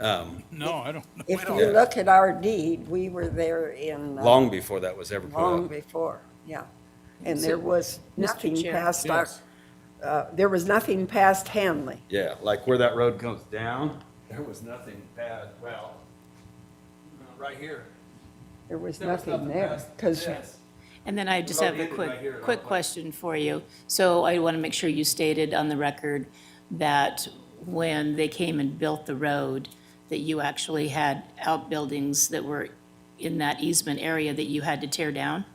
um, No, I don't know. If you look at our deed, we were there in. uh, long before that was ever put Long up. before, yeah. And So, there was Mr. nothing Chair. past our, Yes. uh, there was nothing past Hanley. Yeah, like where that road comes down, there was nothing bad, well, uh, right here. There was There was nothing there. past Because this. And then I just Well, have a they did right here, quick, I'll quick put- question for you. So I want to make sure you stated on the record that when they came and built the road, that you actually had outbuildings that were in that easement area that you had to tear down?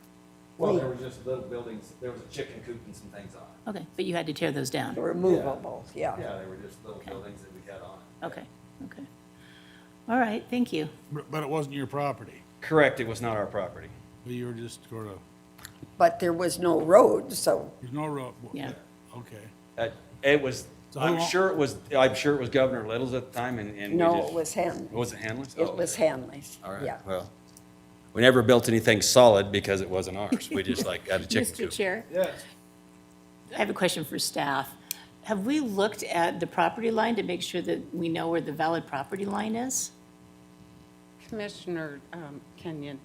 Well, there were just little buildings, there was a chicken coop and some things on it. Okay, but you had to tear those down? were movable, yeah. Yeah, they were just little buildings that we had on it. Okay, okay. All right, thank you. But- But it wasn't your property. Correct, it was not our property. You were just sort of, But there was no road, so there's no road. w- Yeah. Okay. Uh, It was, So who I'm own- sure it was, I'm sure it was Governor Little's at the time and, and we no, just- it was Hanley. Was it Hanley's? Oh, It was Hanley's, All right, yeah. well, we never built anything solid because it wasn't ours. We just like got a chicken Mr. coop. Chair? I have a question for staff. Have we looked at the property line to make sure that we know where the valid property line is? Commissioner um, Kenyon,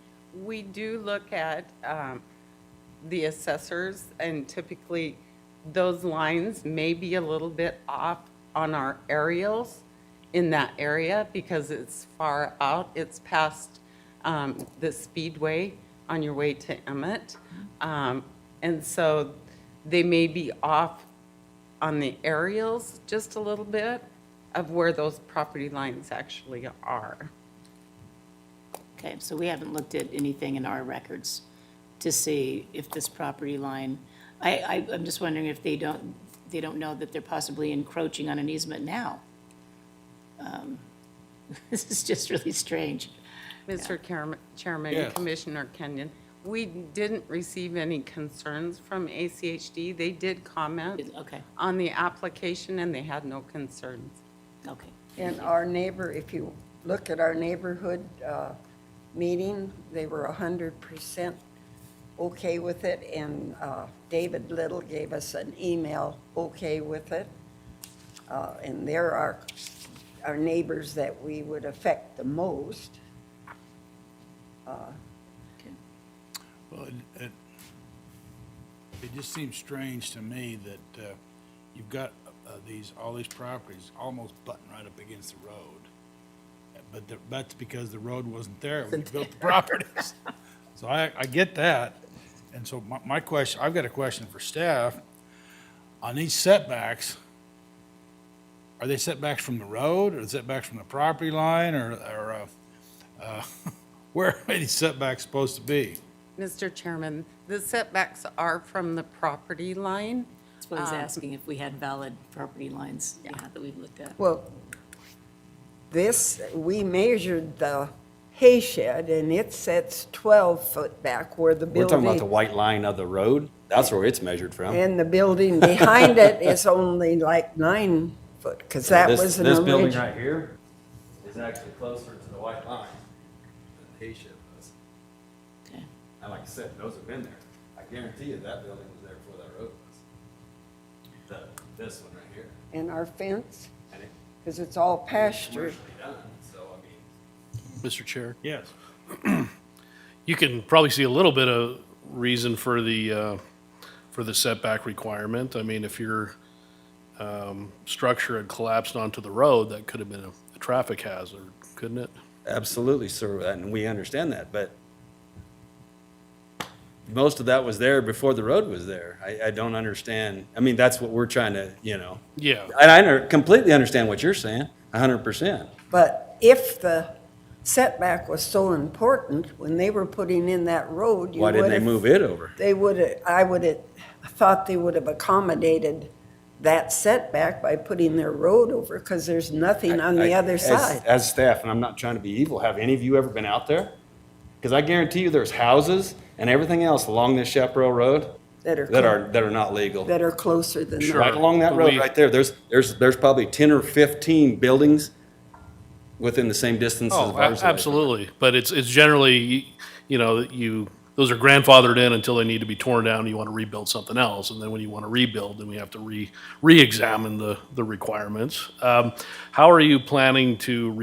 we do look at um, the assessors, and typically, those lines may be a little bit off on our aerials in that area because it's far out. It's past um, the speedway on your way to Emmett. Um, And so they may be off on the aerials just a little bit of where those property lines actually are. Okay, so we haven't looked at anything in our records to see if this property line, I, I, I'm just wondering if they don't, they don't know that they're possibly encroaching on an easement now. Um, This is just really strange. Mr. Chairm- Chairman, Yes. Commissioner Kenyon, we didn't receive any concerns from ACHD. They did comment Okay, on the application, and they had no concerns. okay. And our neighbor, if you look at our neighborhood uh, meeting, they were 100% okay with it, and uh, David Little gave us an email, okay with it. Uh, And they're our, our neighbors that we would affect the most. Well, it, it- it just seems strange to me that uh, you've got uh, these, all these properties almost butting right up against the road. But the- that's because the road wasn't there when you built the properties. So I, I get that. And so my, my question, I've got a question for staff. On these setbacks, are they setbacks from the road or setbacks from the property line or, or uh, uh, where are these setbacks supposed to be? Mr. Chairman, the setbacks are from the property line. That's what I was asking, if we had valid property lines, Um, yeah, that we've looked at. Well, this, we measured the hay shed, and it sets 12 foot back where the We're building. talking about the white line of the road? That's where it's measured from. And the building behind it is only like nine foot, because that This- was an This building original. right here is actually closer to the white line than the hay shed was. Okay. And like I said, those have been there. I guarantee you that building was there before that road was. The, this one right here. And our fence, And it- because it's all it's pasture. commercially done, so I mean. Mr. Chair. Yes. You can probably see a little bit of reason for the, uh, for the setback requirement. I mean, if your um, structure had collapsed onto the road, that could have been a a traffic hazard, couldn't it? Absolutely, sir, and we understand that, but most of that was there before the road was there. I, I don't understand. I mean, that's what we're trying to, you know. Yeah. And I under- completely understand what you're saying, a hundred percent. But if the setback was so important, when they were putting in that road, you Why would didn't they move it over? They would have, I would have, thought they would have accommodated that setback by putting their road over, because there's nothing on the I- other as- side. As staff, and I'm not trying to be evil, have any of you ever been out there? Because I guarantee you there's houses and everything else along this Chaparral Road That are that clo- are, that are not legal. That are closer than that. Right along that road, We- right there, there's, there's, there's probably ten or fifteen buildings within the same distance as Oh, a- ours. absolutely. But it's, it's generally, you know, that you, those are grandfathered in until they need to be torn down, and you want to rebuild something else. And then when you want to rebuild, then we have to re, re-examine the, the requirements. Um, How are you planning to